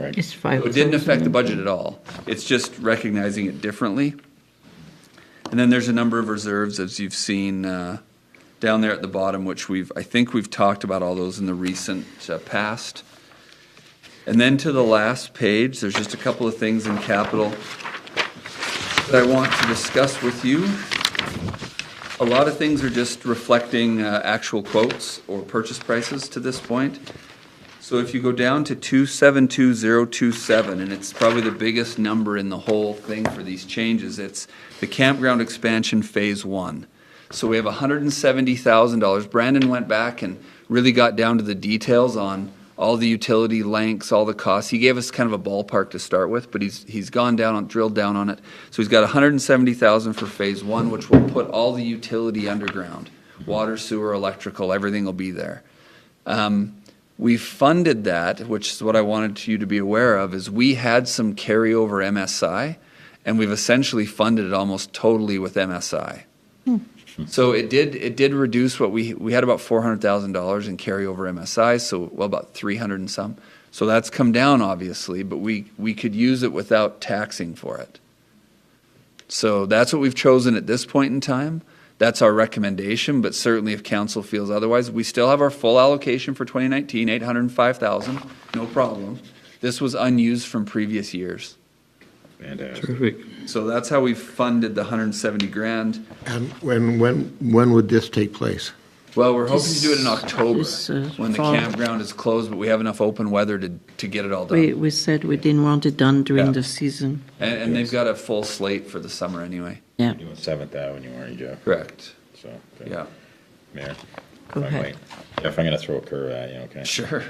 It's five. So It didn't affect the budget at all. It's just recognizing it differently. And then there's a number of reserves, as you've seen uh, down there at the bottom, which we've, I think we've talked about all those in the recent uh, past. And then to the last page, there's just a couple of things in capital that I want to discuss with you. A lot of things are just reflecting uh, actual quotes or purchase prices to this point. So if you go down to two seven two zero two seven, and it's probably the biggest number in the whole thing for these changes, it's the campground expansion phase one. So we have hundred and seventy thousand dollars. Brandon went back and really got down to the details on all the utility lengths, all the costs. He gave us kind of a ballpark to start with, but he's, he's gone down on, drilled down on it. So he's got hundred and seventy thousand for phase one, which will put all the utility underground. Water, sewer, electrical, everything will be there. Um, we funded that, which is what I wanted you to be aware of, is we had some carryover MSI, and we've essentially funded it almost totally with MSI. So it did it did reduce what we we had about four hundred thousand dollars in carryover MSI, so well about three hundred and some. So that's come down obviously, but we we could use it without taxing for it. So that's what we've chosen at this point in time. That's our recommendation, but certainly if council feels otherwise, we still have our full allocation for 2019, 805,000, no problem. This was unused from previous years. Fantastic. Perfect. So that's how we funded the 170 grand. And when, when, when would this take place? Well, we're hoping to do it in October, This, uh, when the fall. campground is closed, but we have enough open weather to, to get it all We, done. we said we didn't want it done during Yeah. the season. And, and they've got a full slate for the summer anyway. Yeah, Doing Seventh Avenue, aren't you, Jeff? Correct. So, okay. Yeah, Mayor. Go if I ahead. might- Jeff, I'm gonna throw a curve at you, okay? sure.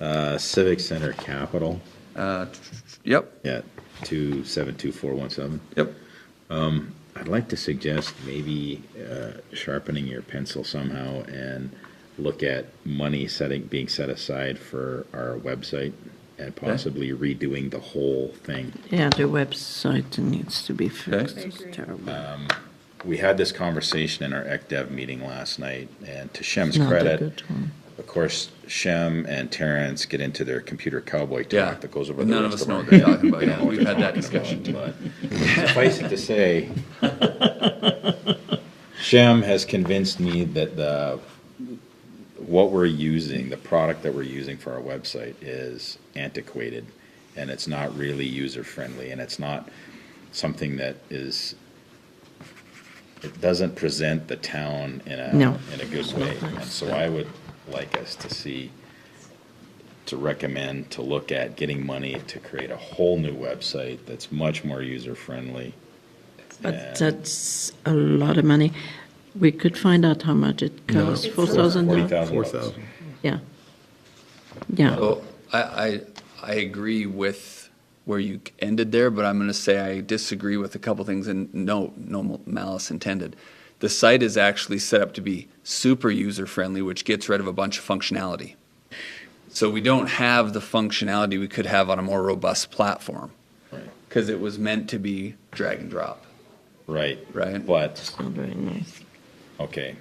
Uh, Civic Center Capital, Uh, Yep, yeah, two seven two four one seven. yep. I'd like to suggest maybe uh, sharpening your pencil somehow and look at money setting, being set aside for our website and possibly redoing the whole thing. yeah, the website needs to be fixed. Okay. It's terrible. We had this conversation in our ECDev meeting last night, and to Shem's Not a credit, good one. Of course, Shem and Terrence get into their computer cowboy talk Yeah. that goes over None the of rest us of know our what they're day. talking about. We don't Yeah, know what we've they're had that talking about, but Suffice it to say, Shem has convinced me that the, what we're using, the product that we're using for our website is antiquated and it's not really user friendly and it's not something that is, it doesn't present the town in a, No. in a good way. nice. And so I would like us to see, to recommend, to look at getting money to create a whole new website that's much more user friendly. But that's a lot of money. We could find out how much it costs, four Uh-huh. thousand Forty dollars? thousand bucks. Yeah. Yeah, Well, I, I, I agree with where you ended there, but I'm going to say I disagree with a couple things and no, no malice intended. The site is actually set up to be super user friendly, which gets rid of a bunch of functionality. So we don't have the functionality we could have on a more robust platform Right. because it was meant to be drag and drop, Right, right? but, not very nice. okay,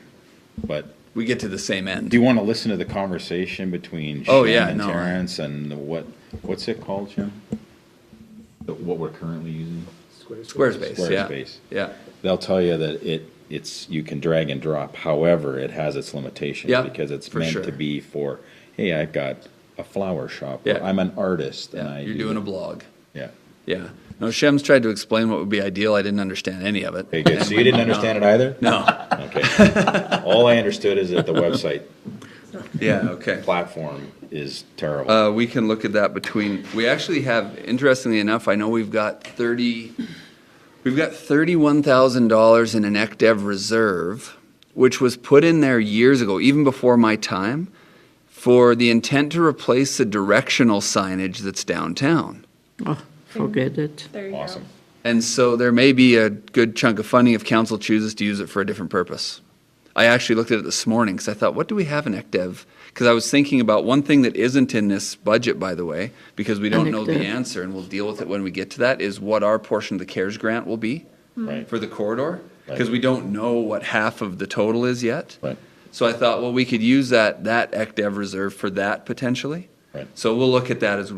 but We get to the same end. do you want to listen to the conversation between Oh, Shem yeah, and no, I- Terrence and what, what's it called, Jim? The- What we're currently using? Squarespace, yeah. Squarespace. Yeah. They'll tell you that it, it's, you can drag and drop, however, it has its limitations. Yeah, Because it's for sure. meant to be for, hey, I've got a flower shop, or Yeah. I'm an artist and yeah. I. You're do- doing a blog. Yeah. Yeah. No, Shem's tried to explain what would be ideal. I didn't understand any of it. Okay, good. So you didn't understand it either? No. Okay. All I understood is that the website Yeah, okay. platform is terrible. Uh, we can look at that between, we actually have, interestingly enough, I know we've got thirty, we've got thirty-one thousand dollars in an ECDev reserve, which was put in there years ago, even before my time, for the intent to replace the directional signage that's downtown. Oh, forget it. There you go. Awesome. And so there may be a good chunk of funding if council chooses to use it for a different purpose. I actually looked at it this morning because I thought, what do we have in ECDev? Because I was thinking about one thing that isn't in this budget, by the way, because we don't An know the ECDev. answer and we'll deal with it when we get to that, is what our portion of the CARES grant will be Right. for the corridor. Because Right. we don't know what half of the total is yet. Right. So I thought, well, we could use that, that ECDev reserve for that potentially. Right. So we'll look at that as